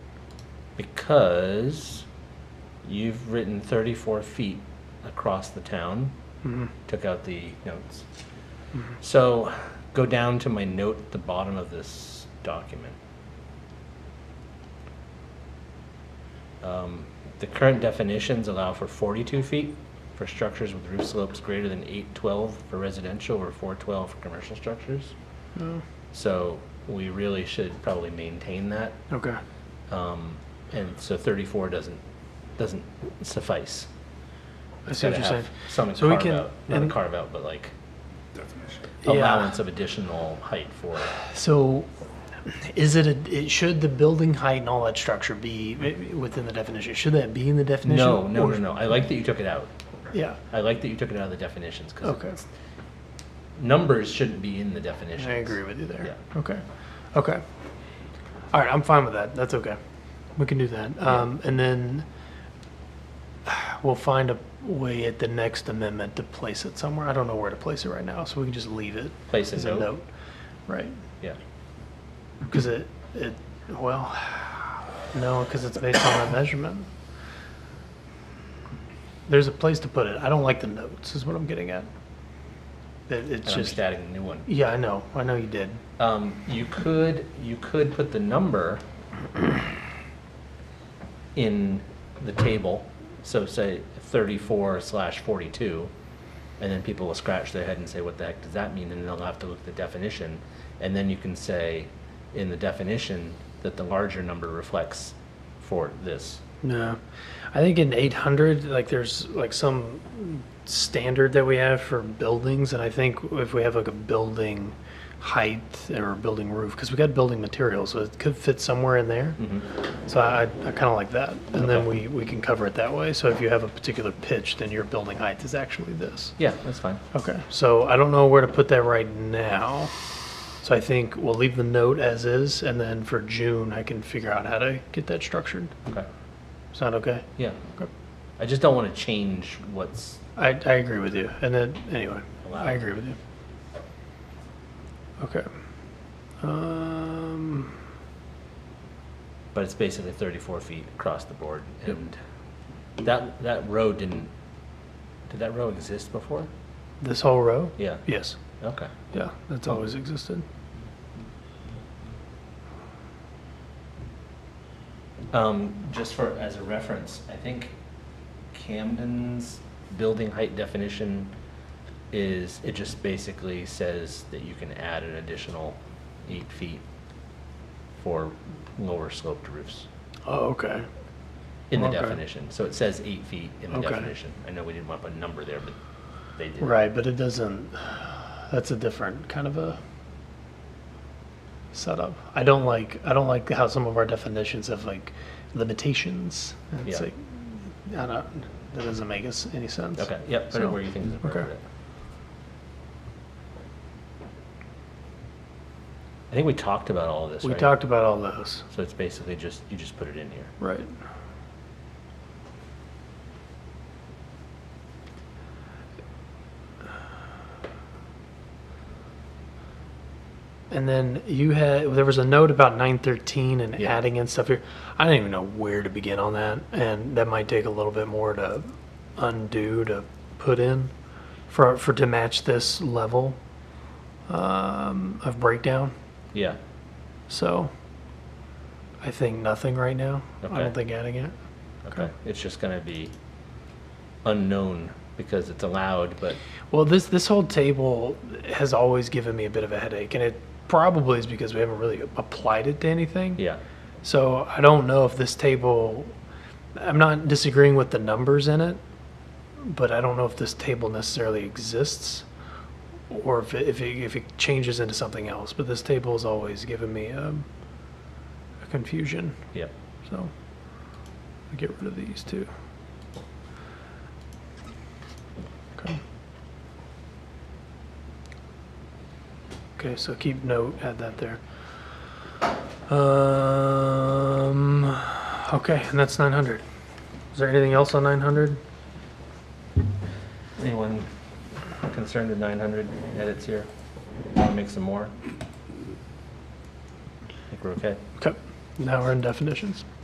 because you've written 34 feet across the town. Mm-hmm. Took out the notes. So go down to my note at the bottom of this document. Um, The current definitions allow for 42 feet for structures with roof slopes greater than 812 for residential or 412 for commercial structures. Oh, So we really should probably maintain that. Okay. Um, and so 34 doesn't, doesn't suffice. I see what you're saying. Some So we carve can- out, not a and- carve out, but like definition. Yeah. allowance of additional height for it. So is it, a? it, should the building height and all that structure be i- within the definition? Should that be in the definition? No, no, Or- no, no. I like that you took it out. Yeah, I like that you took it out of the definitions because okay. numbers shouldn't be in the I definitions. agree with you there. Yeah. Okay, okay. All right, I'm fine with that. That's okay. We can do that. Um, and then we'll find a way at the next amendment to place it somewhere. I don't know where to place it right now, so we can just leave it Place as a a note. note. Right. Yeah. Because it, it, well, no, because it's based on a measurement. There's a place to put it. I don't like the notes, is what I'm getting at. It, And it's I'm just just, adding a new one. yeah, I know, I know you did. Um, you could, you could put the number in the table, so say thirty-four slash forty-two, and then people will scratch their head and say, what the heck does that mean? And they'll have to look at the definition, and then you can say in the definition that the larger number reflects for this. No, I think in 800, like there's like some standard that we have for buildings, and I think if we have like a building height or building roof, because we got building materials, so it could fit somewhere in there. So I, I kind of like that, and then we, we can cover it that way. So if you have a particular pitch, then your building height is actually this. Yeah, that's fine. Okay. So I don't know where to put that right now. So I think we'll leave the note as is, and then for June I can figure out how to get that structured. Okay, Sound okay? yeah. Okay. I just don't want to change what's, I, I agree with you. And then anyway, Allow. I agree with you. Okay. Um, but it's basically thirty-four feet across the board, and that, that row didn't, did that row exist before? this whole row? Yeah, Yes. okay. Yeah, that's always existed. Um, just for, as a reference, I think Camden's building height definition is, it just basically says that you can add an additional eight feet for lower sloped roofs Oh, okay. in the Okay. definition. So it says eight feet in the Okay. definition. I know we didn't want to put a number there, but they did. Right, but it doesn't. That's a different kind of a setup. I don't like. I don't like how some of our definitions have like limitations. It's Yeah. like I don't. That doesn't make us any sense. Okay, yep, put it So- where you think is okay. appropriate. I think we talked about all of this, We right? talked about all those. So it's basically just, you just put it in here. Right. And then you had there was a note about 913 and Yeah. adding in stuff here. I don't even know where to begin on that, and that might take a little bit more to undo to put in for for to match this level um, of breakdown. Yeah, So I think nothing right now. I Okay. don't think adding it. okay. Okay. It's just gonna be unknown because it's allowed, but Well, this this whole table has always given me a bit of a headache, and it probably is because we haven't really applied it to anything. yeah, So I don't know if this table. I'm not disagreeing with the numbers in it, but I don't know if this table necessarily exists, or if it, if it, if it changes into something else. But this table has always given me um, a confusion. yeah. So I get rid of these two. Okay. Okay, so keep note, add that there. Um, okay, and that's 900. Is there anything else on 900? Anyone concerned with nine hundred edits here? Wanna make some more? I think we're okay. Okay, now we're in definitions.